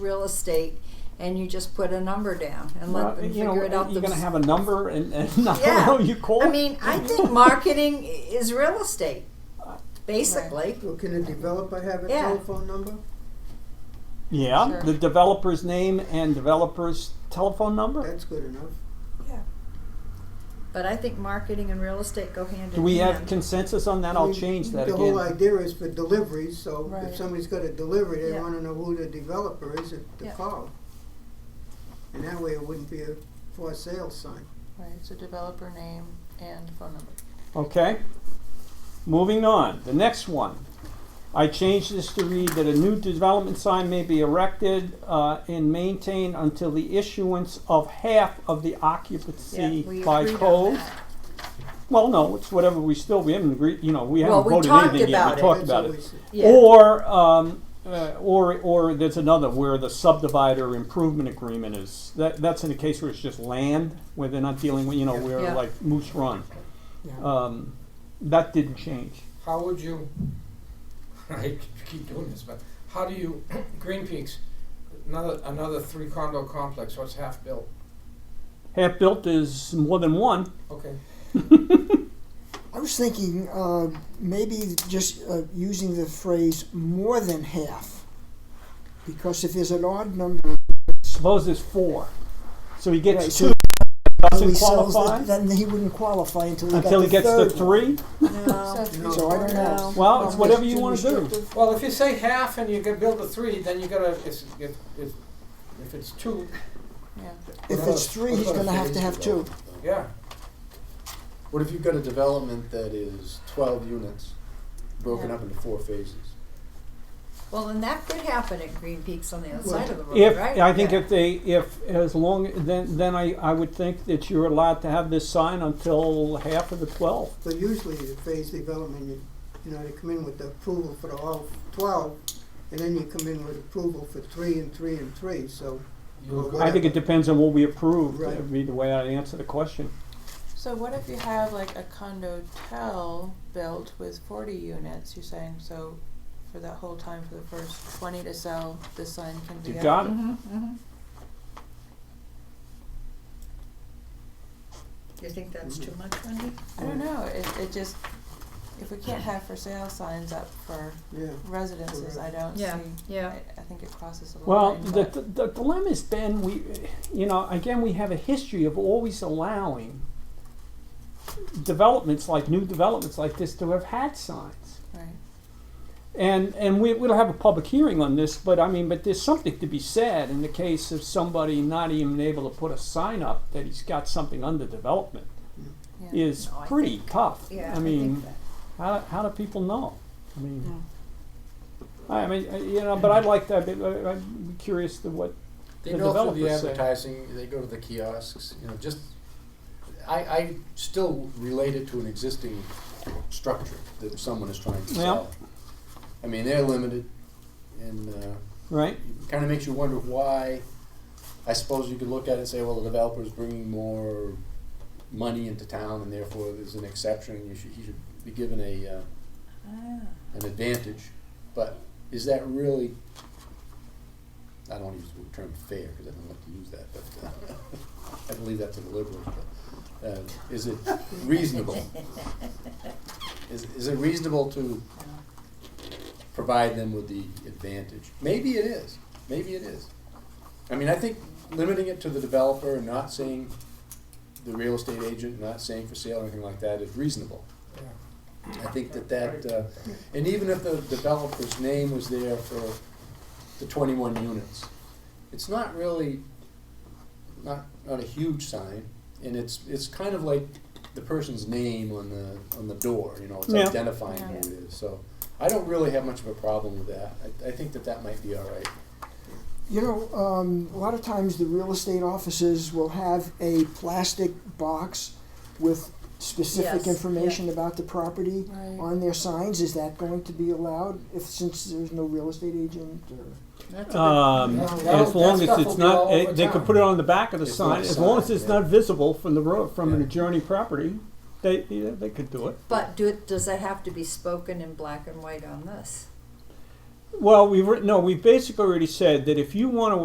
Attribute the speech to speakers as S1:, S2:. S1: real estate and you just put a number down and let
S2: Well,
S1: them
S2: you
S1: figure
S2: know,
S1: it out
S2: You're
S1: themselves.
S2: gonna have a number and, and not
S1: yeah.
S2: know you call.
S1: I mean, I think marketing is real estate, basically.
S3: Well, can the developer have a
S1: Yeah.
S3: telephone number?
S2: Yeah,
S4: Sure.
S2: the developer's name and developer's telephone number.
S3: That's good enough.
S1: But I think marketing and real estate go hand
S2: Do
S1: in
S2: we have
S1: hand.
S2: consensus on that?
S3: I
S2: I'll
S3: mean,
S2: change that
S3: The whole
S2: again.
S3: idea is for deliveries, so
S4: Right.
S3: if somebody's got a delivery, they
S1: Yeah.
S3: wanna know who the developer is at the
S4: Yeah.
S3: call. And that way it wouldn't be a for sale sign.
S4: Right, so developer name and phone number.
S2: Okay. Moving on, the next one. I changed this to read that a new development sign may be erected, uh, and maintained until the issuance of half of the occupancy
S1: We
S2: by
S1: agreed on
S2: code.
S1: that.
S2: Well, no, it's whatever we still, we haven't agreed, you know, we
S1: Well,
S2: haven't
S1: we
S2: voted
S1: talked
S2: anything yet,
S1: about
S2: we
S1: it.
S2: talked
S3: That's
S2: about it.
S3: always-
S1: Yeah.
S2: Or, um, uh, or, or there's another where the subdivider improvement agreement is, that, that's in the case where it's just land, where they're not dealing with, you know, where
S1: Yeah.
S2: like Moose Run.
S5: Yeah.
S2: Um, that didn't change.
S5: How would you, I keep doing this, but how do you, Green Peaks, another, another three condo complex, what's half built?
S2: Half-built is more than one.
S5: Okay,
S6: I was thinking uh, maybe just uh, using the phrase more than half, because if there's an odd number,
S2: Suppose there's four. So he
S6: Right,
S2: gets
S6: so
S2: two,
S6: until
S2: doesn't
S6: he sells
S2: qualify,
S6: it, then he wouldn't qualify until he,
S2: until
S6: got
S2: he gets
S6: the
S2: to
S6: third one.
S2: three.
S1: No.
S3: No.
S6: So I don't know.
S2: Well, it's
S6: That's
S2: whatever you
S6: too
S2: wanna do.
S6: restrictive.
S5: well, if you say half and you can build a three, then you gotta, it's, if, if, if it's two,
S4: Yeah.
S6: If it's three, he's going to have to have two.
S5: yeah,
S7: What if you've got a development that is twelve units, broken
S4: Yeah.
S7: up into four phases?
S1: Well, and that could happen at Green Peaks on the other side of the road,
S2: If,
S1: right?
S2: I think
S1: Yeah.
S2: if they, if, as long, then, then I, I would think that you're allowed to have this sign until half of the twelve.
S3: But usually the phase development, you, you know, they come in with the approval for the all twelve, and then you come in with approval for three and three and three, so.
S5: you
S3: Well,
S5: agree.
S2: I think it depends on what we approve,
S3: Right.
S2: that'd be the way I'd answer the question.
S4: So what if you have like a condo tell built with forty units, you're saying, so for that whole time for the first twenty to sell, this sign can be
S2: You
S4: up?
S2: got it?
S1: Mhm, mhm. You think that's too much, Wendy?
S4: I don't know, it, it just, if we can't have for sale signs up for
S3: Yeah.
S4: residences, I don't see,
S1: Yeah, yeah.
S4: I, I think it crosses a
S2: Well,
S4: line,
S2: the,
S4: but-
S2: the, the dilemma has been we, you know, again, we have a history of always allowing developments like new developments like this to have had signs.
S4: right,
S2: And, and we, we'll have a public hearing on this, but I mean, but there's something to be said in the case of somebody not even able to put a sign up that he's got something under development
S4: yeah.
S2: is
S1: No, I
S2: pretty tough.
S1: Yeah,
S2: I
S1: think
S2: mean,
S1: that.
S2: how, how do people know? I mean, I mean, uh, you know, but I'd like to, I'd be- I'd be curious to what
S7: They
S2: The
S7: go through the
S2: developers say.
S7: advertising, they go to the kiosks, you know, just, I, I still relate it to an existing structure that someone is trying to
S2: Yeah.
S7: sell. I mean, they're limited, and, uh,
S2: Right?
S7: it kind of makes you wonder why. I suppose you could look at it and say, well, the developer's bringing more money into town, and therefore there's an exception. You should, he should be given a uh,
S1: Ah.
S7: an advantage. But is that really? I don't use the term fair because I don't like to use that, but uh, I believe that's a liberal. But, uh, is it reasonable? is, is it reasonable to provide them with the advantage? Maybe it is. Maybe it is. I mean, I think limiting it to the developer and not saying the real estate agent, not saying for sale or anything like that is reasonable. I think that that, uh, and even if the developer's name was there for the twenty-one units, it's not really, not, not a huge sign, and it's, it's kind of like the person's name on the, on the door, you know, it's
S2: Yeah.
S7: identifying who it is, so. I don't really have much of a problem with that, I, I think that that might be all right.
S6: You know, um, a lot of times the real estate offices will have a plastic box with
S1: Yes,
S6: specific
S1: yeah.
S6: information about the property
S4: Right.
S6: on their signs. Is that going to be allowed if since there's no real estate agent or?
S1: That's a good-
S2: Um,
S5: No, that-
S2: as long as
S5: that stuff
S2: it's
S5: will be all
S2: not, eh,
S5: over
S2: they could
S5: town.
S2: put it on the back of the
S7: It's
S2: sign,
S7: not a
S2: as long as
S7: sign,
S2: it's
S7: yeah.
S2: not visible from the road, from an
S7: Yeah.
S2: adjoining property, they, yeah, they could do it.
S1: But do, it- does that have to be spoken in black and white on this?
S2: Well, we've, writ- no, we've basically already said that if you wanna